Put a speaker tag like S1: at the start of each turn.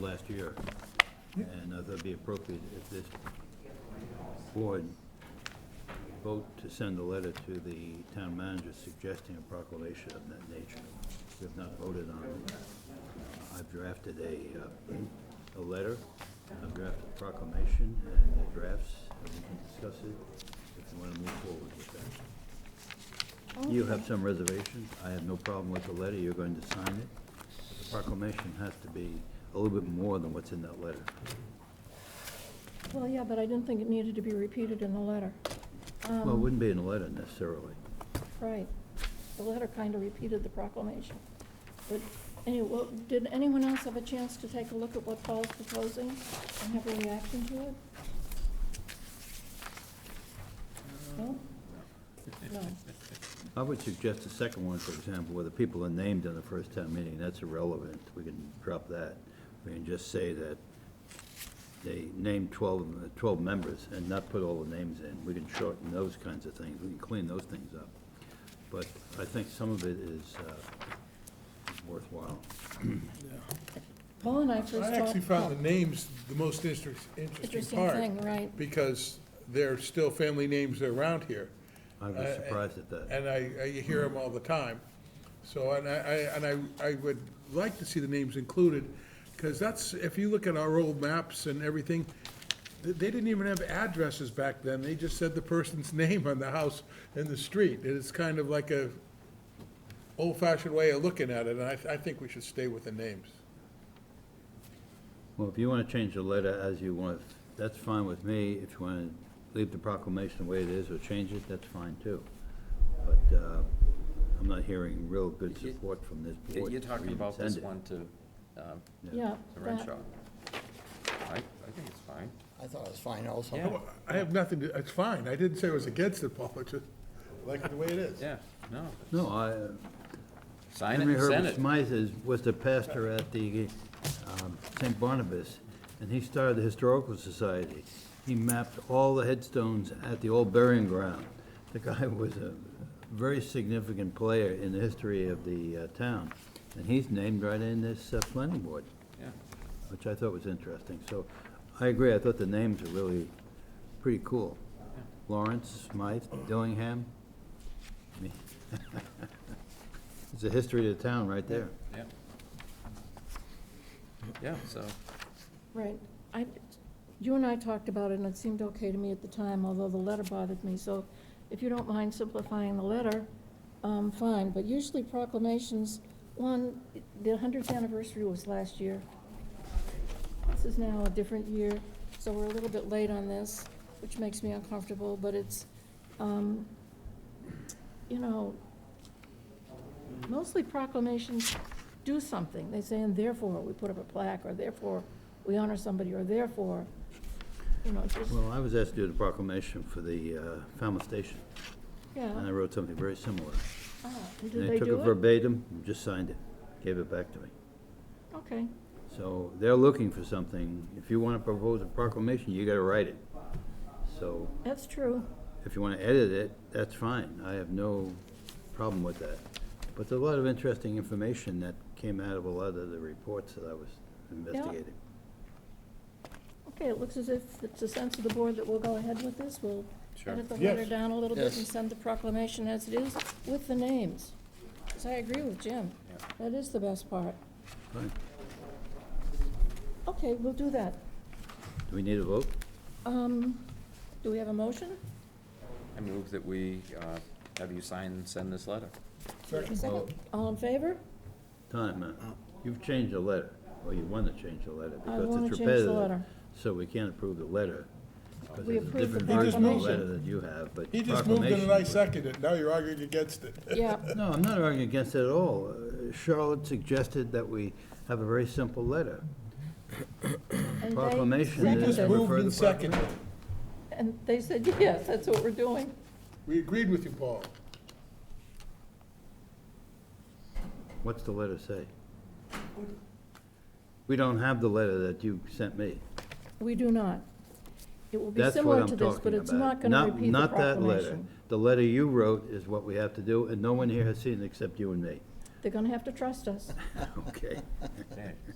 S1: last year. And I thought it'd be appropriate if this board vote to send a letter to the town manager suggesting a proclamation of that nature. We have not voted on it. Uh, I've drafted a, uh, a letter, I've drafted a proclamation and the drafts, and we can discuss it if you want to move forward with that. You have some reservations. I have no problem with the letter. You're going to sign it. The proclamation has to be a little bit more than what's in that letter.
S2: Well, yeah, but I didn't think it needed to be repeated in the letter. Um,
S1: Well, it wouldn't be in the letter necessarily.
S2: Right. The letter kind of repeated the proclamation. But anyway, well, did anyone else have a chance to take a look at what Paul's proposing and have a reaction to it? No? No.
S1: I would suggest the second one, for example, where the people are named in the first town meeting, that's irrelevant. We can drop that. We can just say that they named 12, uh, 12 members and not put all the names in. We can shorten those kinds of things. We can clean those things up. But I think some of it is uh, worthwhile.
S2: Paul and I first talked.
S3: I actually found the names the most inter- interesting
S2: Interesting
S3: part,
S2: thing, right.
S3: because they're still family names around here.
S1: I
S3: Uh,
S1: was surprised at that.
S3: And I, I hear them all the time. So, and I, I- and I, I would like to see the names included, because that's, if you look at our old maps and everything, th- they didn't even have addresses back then. They just said the person's name on the house and the street. And it's kind of like a old-fashioned way of looking at it, and I, th- I think we should stay with the names.
S1: Well, if you want to change the letter as you want, that's fine with me. If you want to leave the proclamation the way it is or change it, that's fine too. But uh, I'm not hearing real good
S4: You-
S1: support from this board.
S4: You're
S1: to
S4: talking
S1: even
S4: about this
S1: send it.
S4: one to, um,
S2: Yeah.
S4: to
S2: that-
S4: Renshaw. I, I think it's fine.
S5: I thought it was fine
S1: Oh,
S5: also.
S4: Yeah.
S3: No, I have nothing, to- it's fine, I didn't say I was against it, Paul, I just like it the way it is.
S4: Yeah, no.
S1: No, I,
S4: Sign it
S1: Henry
S4: and send
S1: Herbert
S4: it.
S1: Smythe is, was the pastor at the um, St. Barnabas, and he started the Historical Society. He mapped all the headstones at the old burying ground. The guy was a very significant player in the history of the uh, town, and he's named right in this uh, planning board,
S4: Yeah.
S1: which I thought was interesting. So I agree, I thought the names are really pretty cool. Lawrence, Smythe, Dillingham. I mean, It's the history of the town right there.
S4: Yeah. Yeah, so,
S2: Right. I, you and I talked about it, and it seemed okay to me at the time, although the letter bothered me. So if you don't mind simplifying the letter, um, fine. But usually proclamations, one, the 100th anniversary was last year. This is now a different year, so we're a little bit late on this, which makes me uncomfortable, but it's, um, you know, mostly proclamations do something. They say, and therefore, we put up a plaque, or therefore, we honor somebody, or therefore, you know, just,
S1: Well, I was asked to do the proclamation for the uh, Falmouth Station, and I
S2: yeah.
S1: wrote something very similar.
S2: Ah,
S1: And
S2: and Did they
S1: took it
S2: do it?
S1: verbatim, and just signed it, gave it back to me.
S2: Okay,
S1: So they're looking for something. If you want to propose a proclamation, you got to write it. So
S2: that's true.
S1: if you want to edit it, that's fine. I have no problem with that. But there's a lot of interesting information that came out of a lot of the reports that I was investigating.
S2: Okay, it looks as if it's a sense of the board that we'll go ahead with this. We'll
S4: Sure.
S2: edit the letter
S3: Yes.
S2: down a little bit
S5: Yes.
S2: and send the proclamation as it is with the names. Because I agree with Jim.
S4: Yeah.
S2: That is the best part.
S1: Fine.
S2: Okay, we'll do that.
S1: Do we need a vote?
S2: Um, do we have a motion?
S4: I move that we, uh, have you sign and send this letter.
S2: Second. All in favor?
S1: Time, uh, you've changed the letter, or you want to change the letter, because
S2: wanna
S1: it's
S2: change the
S1: repetitive.
S2: letter.
S1: So we can't approve the letter, because
S2: We
S1: there's a
S2: approve the
S1: different version of the letter
S2: proclamation.
S1: that you have, but proclamation.
S3: He just moved it and I seconded it, now you're arguing against it.
S2: Yeah,
S1: No, I'm not arguing against it at all. Uh, Charlotte suggested that we have a very simple letter.
S2: and they
S1: Proclamation
S3: We
S1: is-
S2: seconded
S3: just
S2: it.
S1: Seconded.
S3: moved and seconded, it.
S2: And they said, yes, that's what we're doing.
S3: we agreed with you, Paul.
S1: What's the letter say? We don't have the letter that you sent me.
S2: We do not. It will be
S1: That's what
S2: similar
S1: I'm
S2: to this, but
S1: talking
S2: it's
S1: about.
S2: not going to repeat the
S1: Not that letter.
S2: proclamation.
S1: The letter you wrote is what we have to do, and no one here has seen it except you and me.
S2: They're going to have to trust us.
S1: Okay.
S4: Okay.